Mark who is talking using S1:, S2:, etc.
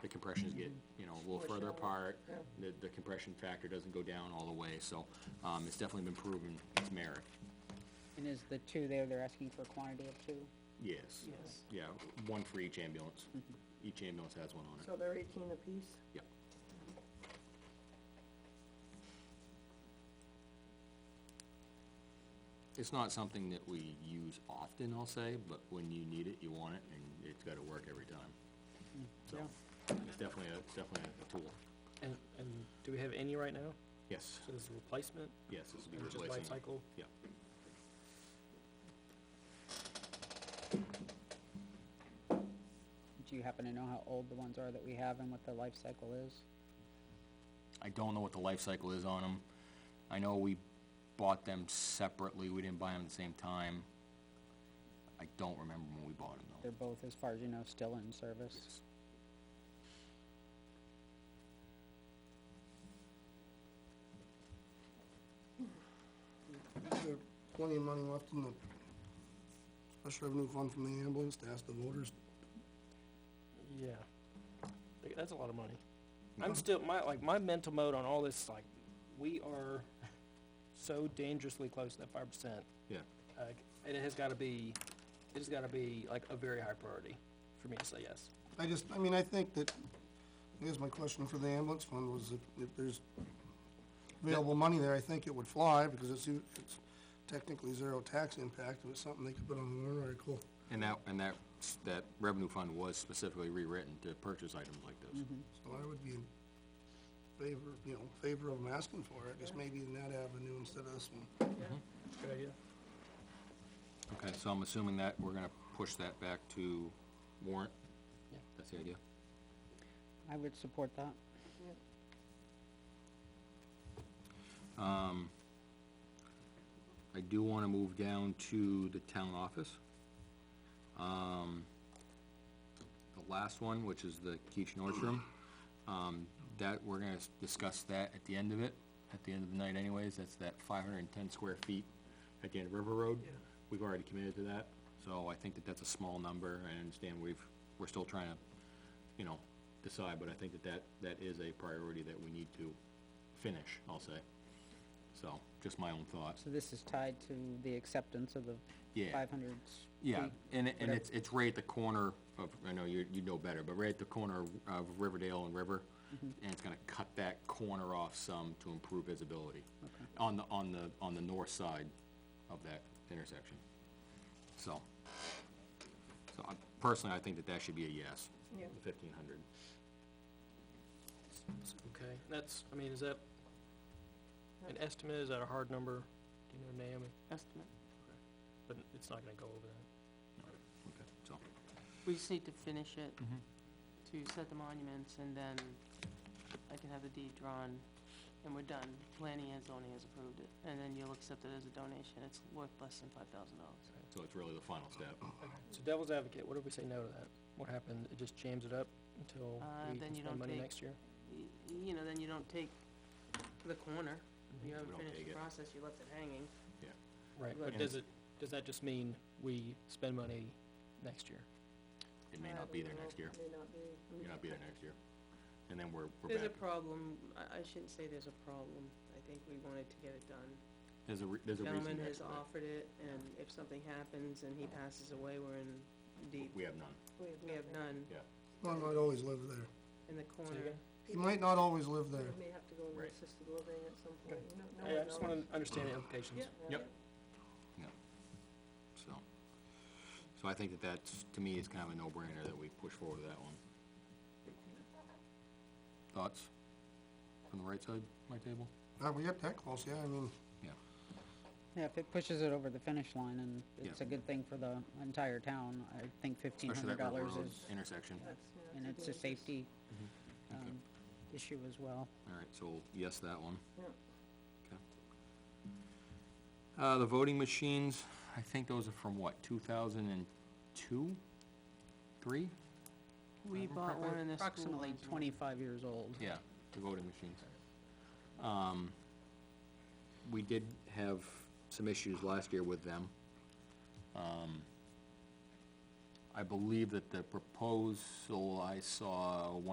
S1: the compressions get, you know, a little further apart, the, the compression factor doesn't go down all the way, so, um, it's definitely been proven its merit.
S2: And is the two there, they're asking for a quantity of two?
S1: Yes.
S3: Yes.
S1: Yeah, one for each ambulance. Each ambulance has one on it.
S3: So they're eighteen apiece?
S1: Yeah. It's not something that we use often, I'll say, but when you need it, you want it, and it's gotta work every time. So, it's definitely a, it's definitely a tool.
S4: And, and do we have any right now?
S1: Yes,
S4: So there's a replacement,
S1: yes, this will be
S4: or just
S1: replacing.
S4: life cycle?
S1: Yeah.
S2: Do you happen to know how old the ones are that we have and what the life cycle is?
S1: I don't know what the life cycle is on them. I know we bought them separately, we didn't buy them at the same time. I don't remember when we bought them though.
S2: They're both, as far as you know, still in service?
S5: There's plenty of money left in the special revenue fund from the ambulance to ask the voters.
S4: Yeah. Like, That's a lot of money. I'm still, my, like, my mental mode on all this, like, we are so dangerously close to that five percent.
S1: Yeah,
S4: Like, and it has gotta be, it has gotta be, like, a very high priority for me to say yes.
S5: I just, I mean, I think that, I guess my question for the ambulance fund was if, if there's available money there, I think it would fly because it's, u- it's technically zero tax impact. If it's something they could put on the warrant article.
S1: and that, and that, that revenue fund was specifically rewritten to purchase items like this.
S4: Mm-hmm.
S5: So I would be in favor, you know, favor of them asking for it, just maybe in that avenue instead of this one.
S4: Good idea.
S1: Okay, so I'm assuming that we're gonna push that back to warrant?
S4: Yeah.
S1: That's the idea?
S2: I would support that.
S1: I do wanna move down to the town office. Um, the last one, which is the Keach Nordstrom, um, that, we're gonna s- discuss that at the end of it, at the end of the night anyways, that's that five hundred and ten square feet at the end of River Road. We've already committed to that, so I think that that's a small number, I understand we've, we're still trying to, you know, decide, but I think that that, that is a priority that we need to finish, I'll say. So, just my own thoughts.
S2: So this is tied to the acceptance of the
S1: Yeah.
S2: five hundred
S1: Yeah, and, it- and
S2: whatever.
S1: it's, it's right at the corner of, I know you, you know better, but right at the corner of- of Riverdale and River.
S3: Mm-hmm.
S1: And it's gonna cut that corner off some to improve visibility. On the, on the, on the north side of that intersection. So. So I, personally, I think that that should be a yes.
S3: Yeah.
S1: Fifteen hundred.
S4: Okay, that's, I mean, is that an estimate? Is that a hard number? Do you know, Naomi?
S6: estimate.
S4: But it's not gonna go over that.
S1: Okay, so,
S6: We just need to finish it,
S1: Mm-hmm.
S6: to set the monuments, and then I can have the deed drawn, and we're done. Planning and zoning has approved it, and then you'll accept it as a donation. It's worth less than five thousand dollars.
S1: so it's really the final step.
S4: So devil's advocate, what if we say no to that? What happens? It just jams it up until
S6: Uh,
S4: we
S6: then
S4: can
S6: you
S4: spend
S6: don't
S4: money
S6: take-
S4: next year?
S6: You know, then you don't take the corner. You
S1: Mm-hmm. We
S6: haven't
S1: don't
S6: finished
S1: take
S6: the
S1: it.
S6: process, you left it hanging.
S4: Right,
S6: Right.
S4: but does it, does that just mean we spend money next year?
S1: It may not be there next year.
S3: May not be.
S1: May not be there next year. And then we're, we're
S6: There's
S1: back.
S6: a problem. I, I shouldn't say there's a problem. I think we wanted to get it done.
S1: There's a, re- there's a reason.
S6: Gentleman
S1: that's
S6: has
S1: what-
S6: offered it, and if something happens and he passes away, we're in deep.
S1: We have none,
S6: We have none
S1: yeah.
S5: Well, I'd always live there.
S6: in the
S4: Say
S6: corner.
S4: again?
S5: You might not always live
S3: They
S5: there.
S3: may have to go into
S1: Right.
S3: assisted living at some point, you know, no
S4: Yeah, I
S3: one
S4: just
S3: knows.
S4: wanna understand the implications.
S3: Yeah.
S1: Yep. Yeah, so, so I think that that's, to me, is kind of a no-brainer that we push forward to that one. Thoughts? From the right side, of my table?
S5: Not we get that close, yeah, I mean,
S1: Yeah,
S2: Yeah, if it pushes it over the finish line and
S1: Yeah.
S2: it's a good thing for the entire town, I think fifteen
S1: especially that
S2: hundred
S1: River
S2: dollars
S1: Road
S2: is,
S1: intersection.
S3: That's, yeah,
S2: and it's a
S3: dangerous.
S2: safety,
S1: Mm-hmm. Okay.
S2: um, issue as well.
S1: All right, so yes, that one,
S3: Yeah.
S1: okay. Uh, the voting machines, I think those are from what, two thousand and two? Three?
S6: We bought one in the school.
S2: Uh, Approximately
S6: ones.
S2: twenty-five years old.
S1: Yeah, the voting machines. Um, we did have some issues last year with them. Um, I believe that the proposal I saw, one